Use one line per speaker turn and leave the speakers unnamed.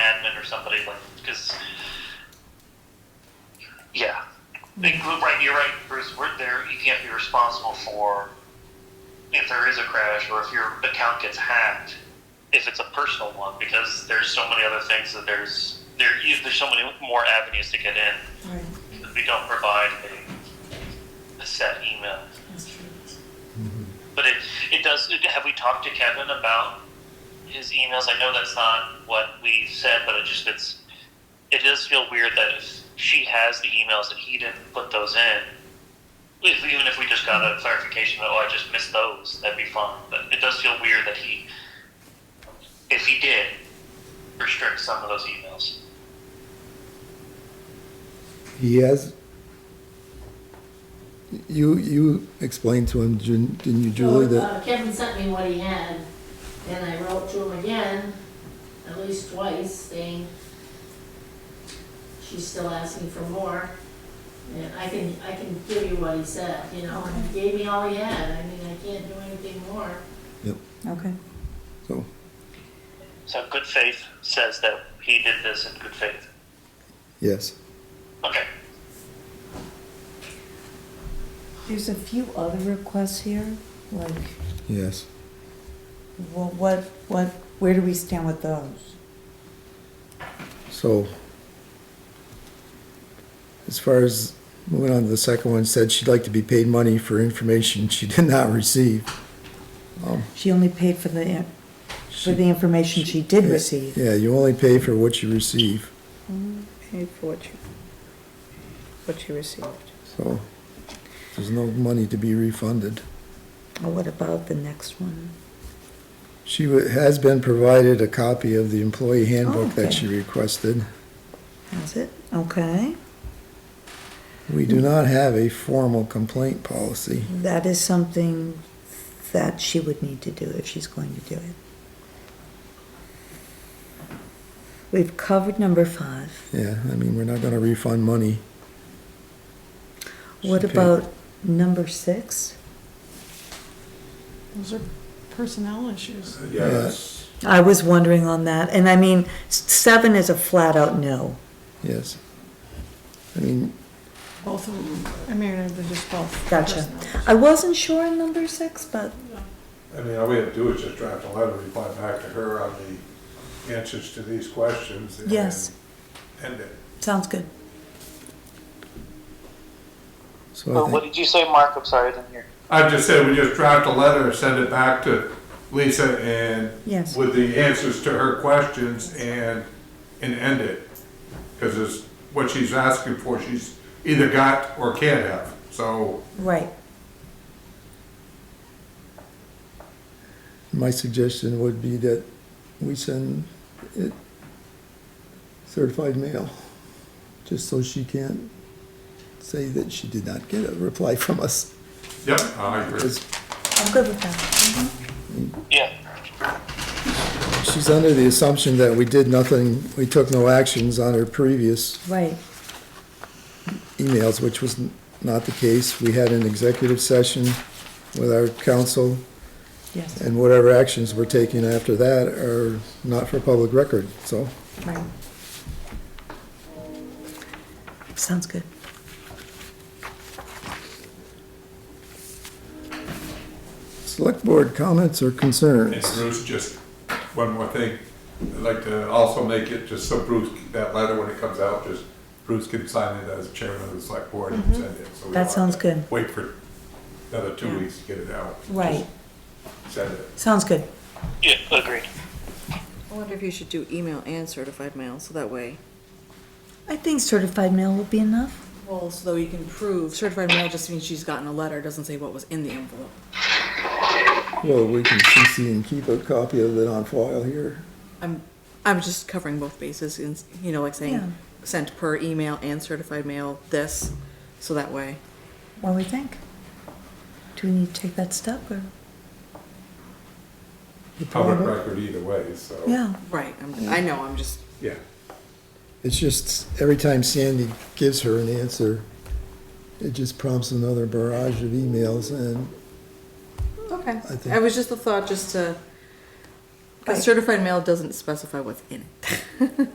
or somebody like because yeah, Like, right. You're right, Bruce. We're there. You can't be responsible for if there is a crash or if your account gets hacked. If it's a personal one, because there's so many other things that there's there. you- There's so many more avenues to get in.
Right,
If we don't provide a, a set email.
that's true.
But it, it does. Have we talked to Kevin about his emails? I know that's not what we said, but it just it's it does feel weird that if she has the emails and he didn't put those in, if, even if we just got a clarification that oh I just missed those, that'd be fine. But it does feel weird that he, if he did, restrict some of those emails.
He has. You you explained to him, Ju- didn't you, Julie?
So,
That
uh, Kevin sent me what he had, and I wrote to him again, at least twice, saying she's still asking for more. And I can, I can give you what he said, you know, and he gave me all he had, I mean, I can't do anything more.
Okay.
so
So good faith says that he did this in good faith.
yes,
Okay.
There's a few other requests here, like,
yes.
well, what, what, where do we stand with those?
So as far as moving on to the second one, said she'd like to be paid money for information she did not receive. Um,
She only paid for the, in- for the information she did receive.
Yeah, you only pay for what you receive.
Paid for what you, what you received.
So there's no money to be refunded.
Well, what about the next one?
She wa- has been provided a copy of the employee handbook that
okay.
she requested.
Has it?
Okay,
We do not have a formal complaint policy.
that is something that she would need to do if she's going to do it. We've covered number five.
Yeah, I mean, we're not gonna refund money.
What
She paid-
about number six?
Those are personnel issues.
Yes.
I was wondering on that, and I mean, s- seven is a flat out no.
Yes. I mean,
Both of them, I mean, they're just both.
Gotcha.
personnel.
I wasn't sure on number six, but
I mean, all we have to do is just draft a letter, reply back to her on the answers to these questions. and
yes,
End it.
sounds good.
so I think,
did you say, Mark? I'm sorry, I didn't hear.
I just said, we just draft a letter, send it back to Lisa and
Yes.
with the answers to her questions and, and end it. Because it's what she's asking for, she's either got or can't have, so.
Right.
my suggestion would be that we send it certified mail, just so she can't say that she did not get a reply from us.
Yep, I agree.
'Cause
I'm good with that.
Yeah.
She's under the assumption that we did nothing, we took no actions on her previous
Right.
emails, which was n- not the case. We had an executive session with our council,
Yes.
and whatever actions were taken after that are not for public record, so.
Right. Sounds good.
Select board comments or
And
concerns?
Bruce, just one more thing. I'd like to also make it, just so Bruce, that letter when it comes out, just Bruce can sign it as chairman of the select board and send it. So
Mm-hmm.
we
That
don't
sounds
have to
good.
Wait for another two
Yeah.
weeks to get it out.
Right.
Just Send it.
Sounds good.
Yeah. Agreed.
I wonder if you should do email and certified mail, so that way.
I think certified mail will be enough.
Well, so though you can prove, certified mail just means she's gotten a letter, doesn't say what was in the envelope.
Well, we can CC and keep a copy of it on file here.
I'm, I'm just covering both bases and, you know, like
Yeah.
saying, sent per email and certified mail, this, so that way.
What do we think? Do we need to take that step or?
Public record either way, so.
Yeah.
Right, I'm, I know, I'm just,
Yeah.
It's just, every time Sandy gives her an answer, it just prompts another barrage of emails, and
okay.
I think-
I was just the thought, just to, 'cause
Right.
certified mail doesn't specify what's in it.